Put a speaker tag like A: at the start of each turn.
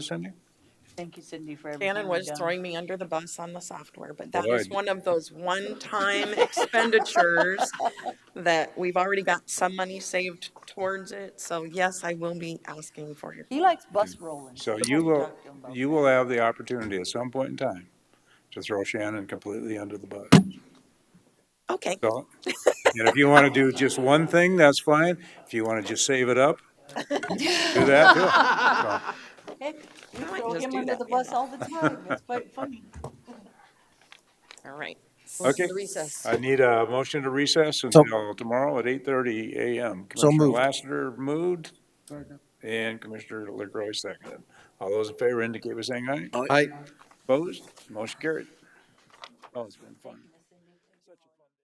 A: Cindy?
B: Thank you, Cindy, for everything.
C: Shannon
B: you've
C: was
B: done.
C: throwing me under the bus on the software, but that was
A: Good.
C: one of those one-time expenditures that we've already got some money saved towards it. So yes, I will be asking for your,
B: He likes bus rolling.
A: So
B: That's
A: you
B: what we
A: will,
B: talked to him about.
A: you will have the opportunity at some point in time to throw Shannon completely under the bus.
C: okay,
A: So, and if you want to do just one thing, that's fine. If you want to just save it up, do that too.
B: Heck, we
C: might
B: throw
C: just
B: him
C: do
B: under
C: that,
B: the
C: you
B: bus
C: know.
B: all the time. It's quite funny.
C: all right.
A: So, Okay,
D: Recess.
A: I need a motion to recess until tomorrow at eight thirty AM.
E: So
A: Commissioner
E: moved.
A: Lassiter moved and Commissioner LaCroy seconded. All those in favor indicate by saying aye.
E: Aye.
A: Opposed? Motion carried. Oh, it's been fun.